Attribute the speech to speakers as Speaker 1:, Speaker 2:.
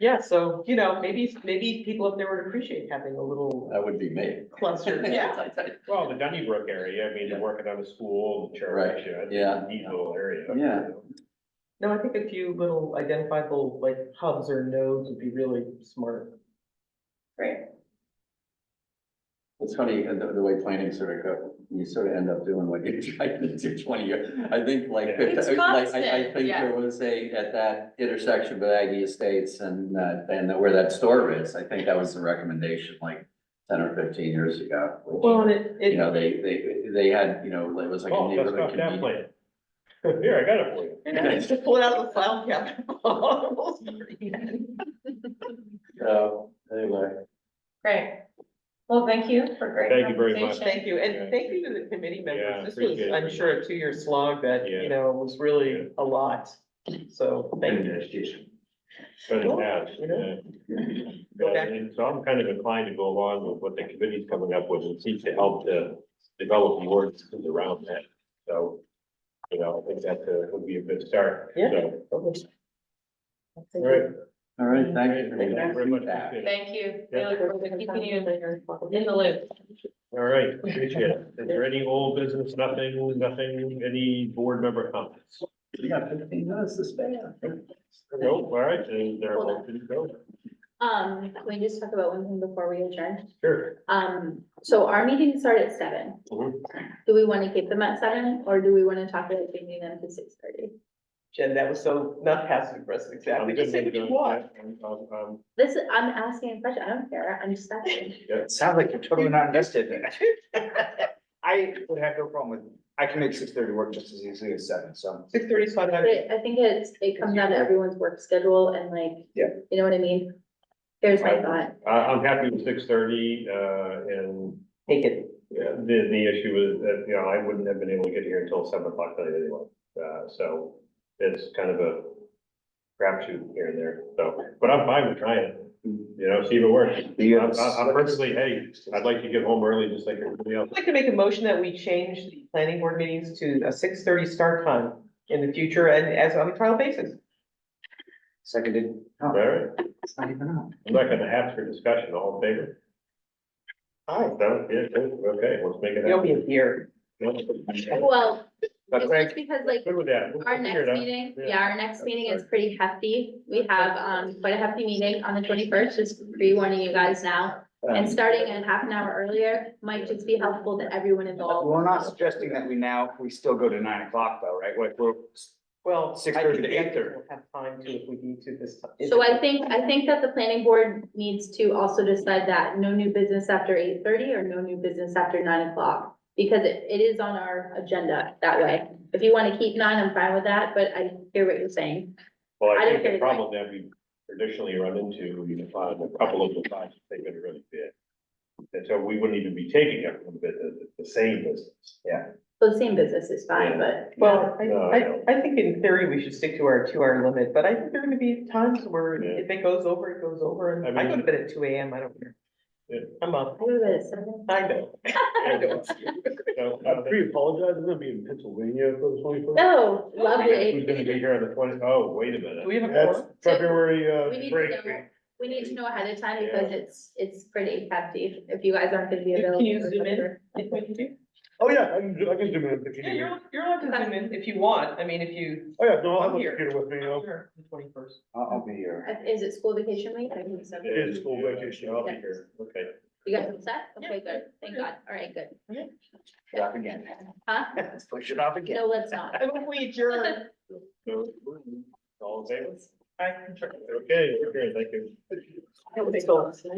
Speaker 1: Yeah, so, you know, maybe, maybe people up there would appreciate having a little uh,
Speaker 2: That would be me.
Speaker 1: cluster.
Speaker 3: Well, the Donnybrook area, I mean, you're working on a school, the church, you know, it's
Speaker 2: Yeah.
Speaker 3: a neat little area.
Speaker 2: Yeah.
Speaker 1: No, I think a few little identifiable like hubs or nodes would be really smart.
Speaker 4: Great.
Speaker 2: It's funny, uh, the, the way planning sort of go, you sort of end up doing what you tried to do twenty years. I think like,
Speaker 3: Yeah.
Speaker 4: It's
Speaker 2: like, I, I
Speaker 4: constant,
Speaker 2: think
Speaker 4: yeah.
Speaker 2: there was a, at that intersection with Aggie Estates and, uh, and where that store is, I think that was the recommendation like ten or fifteen years ago. which,
Speaker 1: Well, and it,
Speaker 2: You
Speaker 1: it,
Speaker 2: know, they, they, they had, you know, it was like a
Speaker 3: Oh, that's
Speaker 2: neighborhood
Speaker 3: not that
Speaker 2: convenience.
Speaker 3: plan. Here, I got it for you.
Speaker 1: it's to pull it out of the file cabinet. Almost forgot.
Speaker 2: So, anyway.
Speaker 4: Great. Well, thank you for great.
Speaker 3: Thank you very much.
Speaker 4: conversation.
Speaker 1: Thank you,
Speaker 3: Yeah.
Speaker 1: and thank you to the committee
Speaker 3: Yeah,
Speaker 1: members. This was,
Speaker 3: appreciate it
Speaker 1: I'm
Speaker 3: very
Speaker 1: sure, a
Speaker 3: much.
Speaker 1: two-year slog that,
Speaker 3: Yeah.
Speaker 1: you know, was
Speaker 3: Yeah.
Speaker 1: really a lot. So, thank you.
Speaker 3: But it
Speaker 1: Well,
Speaker 3: has,
Speaker 1: you know.
Speaker 3: yeah.
Speaker 1: Go back.
Speaker 3: And so I'm kind of inclined to go along with what the committee's coming up with and seek to help to develop more things around that. So, you know, I think that uh, would be a good start.
Speaker 1: Yeah.
Speaker 3: So, All
Speaker 1: Thank
Speaker 3: right.
Speaker 1: you.
Speaker 2: All right, thank you. for
Speaker 3: Thank you very much.
Speaker 2: that.
Speaker 3: Appreciate it.
Speaker 4: Thank you.
Speaker 3: Yeah.
Speaker 4: Really for keeping you in the loop.
Speaker 3: All right, appreciate it. Is there any old business, nothing, nothing, any board member comments?
Speaker 2: You got fifteen minutes to spare.
Speaker 3: No, all right, is there a motion to go?
Speaker 5: Um, can we just talk about one thing before we adjourn?
Speaker 3: Sure.
Speaker 5: Um, so our meetings start at seven.
Speaker 3: Mhm.
Speaker 5: Do we want to keep them at seven or do we want to talk about changing them to six thirty?
Speaker 1: Jen, that was so not passive aggressive,
Speaker 3: I'm
Speaker 1: exactly.
Speaker 3: good
Speaker 1: Just say what
Speaker 3: with
Speaker 1: you
Speaker 3: that.
Speaker 1: want.
Speaker 3: Yeah, um, um,
Speaker 5: This is, I'm asking a question. I don't care. I'm just asking.
Speaker 3: yeah.
Speaker 6: Sounds like you're totally not invested. I would have no problem with, I can make six thirty work just as easily as seven, so.
Speaker 1: Six thirty is fine.
Speaker 5: But
Speaker 1: I-
Speaker 5: I think it's, it comes down to everyone's work schedule and like,
Speaker 6: Yeah.
Speaker 5: you know what I mean? Here's my
Speaker 3: Right.
Speaker 5: thought.
Speaker 3: I, I'm happy with six thirty, uh, and
Speaker 1: Take it.
Speaker 3: Yeah, the, the issue is that, you know, I wouldn't have been able to get here until seven o'clock tonight anyway, uh, so it's kind of a crapshoot here and there, so, but I'm fine with trying, you know, see if it works.
Speaker 6: You
Speaker 3: I'm, I'm I'm perfectly, hey, I'd like to get home early just like everybody else.
Speaker 1: I'd like to make a motion that we change the planning board meetings to a six thirty start time in the future and as on a trial basis.
Speaker 6: Seconded.
Speaker 3: All right,
Speaker 6: It's not even on.
Speaker 3: I'm not gonna ask for discussion, all in favor? Aye. That, yeah, okay, let's make it
Speaker 1: You'll
Speaker 3: happen.
Speaker 1: be here.
Speaker 5: Well,
Speaker 6: But
Speaker 5: it's just
Speaker 6: Craig,
Speaker 5: because like
Speaker 3: Good with that. We'll
Speaker 5: Our
Speaker 3: figure it
Speaker 5: next
Speaker 3: out.
Speaker 5: meeting,
Speaker 3: Yeah.
Speaker 5: yeah, our next meeting is pretty hefty. We have, um, quite a hefty meeting on the twenty-first, just pre-warning you guys now. And
Speaker 6: um,
Speaker 5: starting at half an hour earlier might just be helpful to everyone involved.
Speaker 6: we're not suggesting that we now, we still go to nine o'clock though, right? Like, we're,
Speaker 1: Well.
Speaker 6: 6:30 to
Speaker 1: I think
Speaker 6: 8:30.
Speaker 1: We'll have time to if we need to this. time.
Speaker 5: So I think, I think that the planning board needs to also decide that no new business after eight thirty or no new business after nine o'clock. Because it, it is on our agenda that way. If you wanna keep nine, I'm fine with that, but I hear what you're saying.
Speaker 3: Well,
Speaker 5: I
Speaker 3: I
Speaker 5: don't
Speaker 3: think
Speaker 5: care
Speaker 3: the
Speaker 5: either
Speaker 3: problem that we traditionally run into, we define a couple of the files, they've been really big. And so we wouldn't even be taking up the, the, the same business. Yeah.
Speaker 5: So the same business is fine, but.
Speaker 1: Well, I,
Speaker 3: No, I don't.
Speaker 1: I, I think in theory, we should stick to our two-hour limit, but I think there are gonna be times where
Speaker 3: Yeah.
Speaker 1: if it goes over, it goes over, and
Speaker 3: I
Speaker 1: I go to
Speaker 3: mean-
Speaker 1: bed at two AM, I don't care.
Speaker 3: Yeah.
Speaker 1: I'm up,
Speaker 5: I would have said seven.
Speaker 1: I know. I know.
Speaker 3: I apologize, I'm gonna be in Pennsylvania for the twenty-first.
Speaker 5: Oh,
Speaker 3: Who's
Speaker 5: lovely.
Speaker 3: gonna be here on the twenty? Oh, wait a minute.
Speaker 1: Do we have a
Speaker 3: That's
Speaker 1: quorum?
Speaker 5: We
Speaker 3: February, uh,
Speaker 5: need to
Speaker 3: break.
Speaker 5: know- We need to know ahead of time because it's, it's pretty hefty if you guys aren't gonna be
Speaker 1: Can
Speaker 5: available.
Speaker 1: you
Speaker 5: or
Speaker 1: zoom in?
Speaker 5: whatever.
Speaker 1: If we can do-
Speaker 3: Oh, yeah, I can, do- I can zoom in if you
Speaker 1: Yeah,
Speaker 3: need me.
Speaker 1: you're, you're allowed to zoom in if you want, I mean, if you.
Speaker 3: Oh, yeah, no, I'll have
Speaker 1: I'm
Speaker 3: a
Speaker 1: here.
Speaker 3: computer with me.
Speaker 1: I'm
Speaker 3: I'll-
Speaker 1: here The twenty-first.
Speaker 6: I'll, I'll be here.
Speaker 5: Uh, Is it school vacation week? I think so.
Speaker 3: It is school vacation, I'll be here. Okay.
Speaker 5: You guys all set? Okay,
Speaker 1: Yeah.
Speaker 5: good. Thank God. All right, good.
Speaker 1: Yeah.
Speaker 6: Yeah, again.
Speaker 5: Huh?
Speaker 6: Let's push it off again.
Speaker 5: No, let's not.
Speaker 1: And if we adjourn,
Speaker 3: So, All in favor?
Speaker 1: I can.
Speaker 3: Okay, okay, thank you.
Speaker 1: It's all-